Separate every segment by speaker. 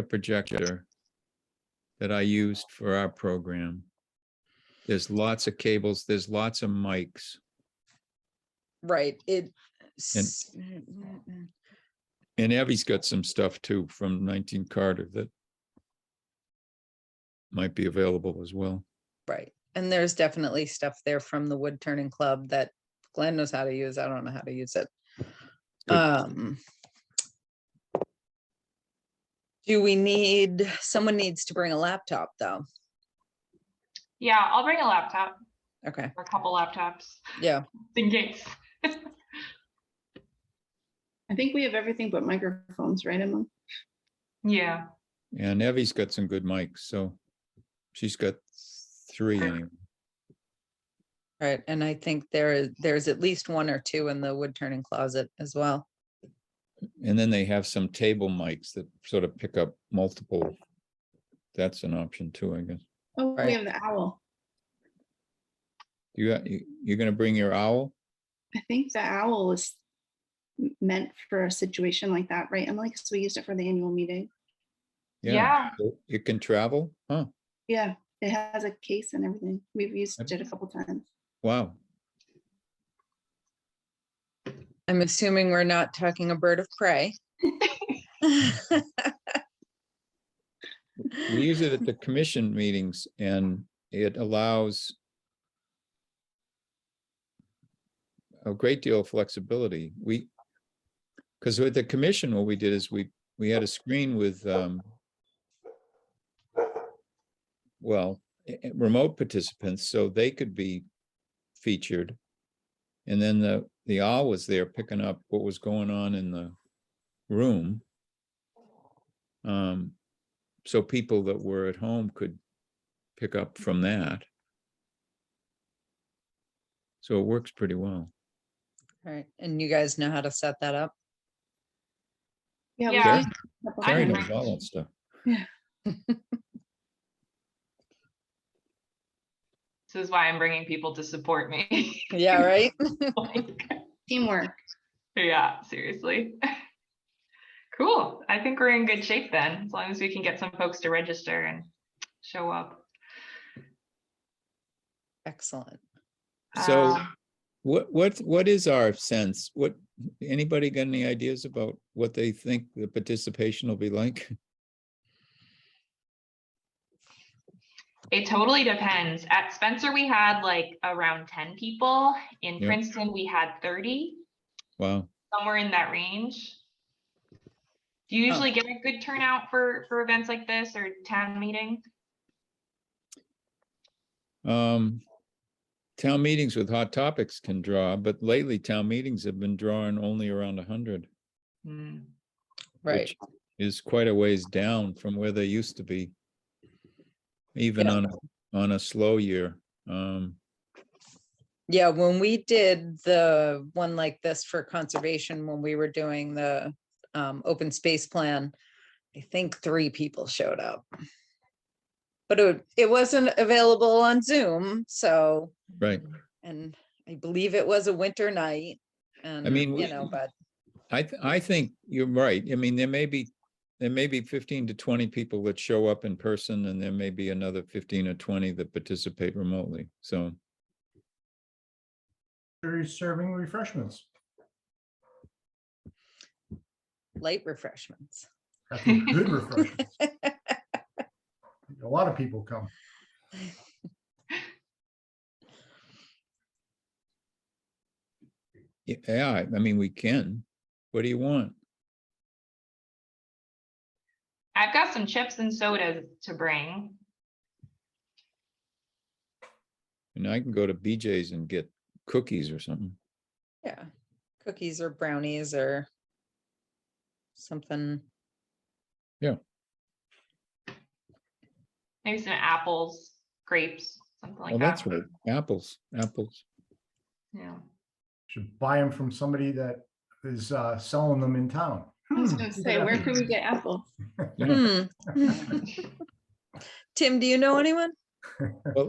Speaker 1: a projector that I used for our program. There's lots of cables, there's lots of mics.
Speaker 2: Right, it. mm,
Speaker 1: And Abby's got some stuff too from nineteen Carter that might be available as well.
Speaker 2: Right, and there's definitely stuff there from the wood turning club that Glenn knows how to use, I don't know how to use it.
Speaker 1: Good.
Speaker 2: Um. Do we need, someone needs to bring a laptop, though,
Speaker 3: Yeah, I'll bring a laptop
Speaker 2: okay,
Speaker 3: or a couple laptops
Speaker 2: yeah,
Speaker 3: in case.
Speaker 4: I think we have everything but microphones, right, Emma?
Speaker 3: Yeah.
Speaker 1: And Abby's got some good mics, so she's got three anyway.
Speaker 2: right, and I think there is, there's at least one or two in the wood turning closet as well.
Speaker 1: And then they have some table mics that sort of pick up multiple. That's an option too, I guess.
Speaker 4: Oh,
Speaker 2: Right.
Speaker 4: we have the owl.
Speaker 1: You, got- you- you're gonna bring your owl?
Speaker 4: I think the owl is m- meant for a situation like that, right, Emily? Because we used it for the annual meeting.
Speaker 3: Yeah.
Speaker 1: so It can travel? Huh,
Speaker 4: Yeah, it has a case and everything. We've used it a couple times.
Speaker 1: wow.
Speaker 2: I'm assuming we're not talking a bird of prey.
Speaker 1: We use it at the commission meetings and it allows a great deal of flexibility. We, because with the commission, what we did is we, we had a screen with, um, well, e- e- remote participants, so they could be featured. And then the, the owl was there picking up what was going on in the room. Um, so people that were at home could pick up from
Speaker 3: Mm-hmm.
Speaker 1: that. So it works pretty well.
Speaker 2: Alright, and you guys know how to set that up?
Speaker 4: Yeah. we've
Speaker 3: Yeah.
Speaker 4: used it a couple
Speaker 3: I
Speaker 1: Terry
Speaker 3: don't
Speaker 4: times.
Speaker 1: knows
Speaker 3: know.
Speaker 1: all that stuff.
Speaker 3: This is why I'm bringing people to support me.
Speaker 2: Yeah, right?
Speaker 3: Like,
Speaker 4: Teamwork.
Speaker 3: yeah, seriously. Cool. I think we're in good shape then, as long as we can get some folks to register and show up.
Speaker 2: Excellent.
Speaker 1: So
Speaker 3: Um,
Speaker 1: what, what, what is our sense? What, anybody got any ideas about what they think the participation will be like?
Speaker 3: It totally depends. At Spencer, we had like around ten people. In
Speaker 1: Yeah.
Speaker 3: Princeton, we had thirty,
Speaker 1: Wow,
Speaker 3: somewhere in that range. Do you
Speaker 2: Oh.
Speaker 3: usually get a good turnout for, for events like this or town meeting?
Speaker 1: um, town meetings with hot topics can draw, but lately town meetings have been drawing only around a hundred.
Speaker 3: Hmm.
Speaker 2: Right.
Speaker 1: which Is quite a ways down from where they used to be. Even
Speaker 2: Yeah.
Speaker 1: on, a- on a slow year. Um,
Speaker 2: Yeah, when we did the one like this for conservation, when we were doing the um, open space plan, I think three people showed up. But it, wa- it wasn't available on Zoom, so,
Speaker 1: right.
Speaker 2: and I believe it was a winter night. And,
Speaker 1: mean, we-
Speaker 2: you know, but,
Speaker 1: I, th- I think you're right. I mean, there may be, there may be fifteen to twenty people that show up in person and there may be another fifteen or twenty that participate remotely. So,
Speaker 5: They're serving refreshments.
Speaker 2: light refreshments.
Speaker 5: I think Good refreshments. A lot of people come.
Speaker 1: y- yeah, I I mean, we can. What do you want?
Speaker 3: I've got some chips and sodas to bring.
Speaker 1: And I can go to BJ's and get cookies or something.
Speaker 2: Yeah, cookies or brownies or something.
Speaker 3: Maybe some apples, grapes, something
Speaker 1: Well,
Speaker 3: like that.
Speaker 1: Oh, that's right. Apples, apples.
Speaker 3: Yeah.
Speaker 5: Should buy them from somebody that is uh, selling them in town.
Speaker 4: I was
Speaker 5: Hmm,
Speaker 4: gonna
Speaker 5: look at
Speaker 4: say,
Speaker 5: that.
Speaker 4: where can we get apple?
Speaker 1: Yeah.
Speaker 2: Hmm. Tim, do you know anyone?
Speaker 1: Well,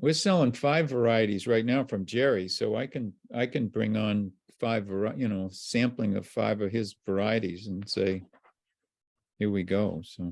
Speaker 1: we're selling five varieties right now from Jerry, so I can, I can bring on five, vari- you know, sampling of five of his varieties and say, here we go, so.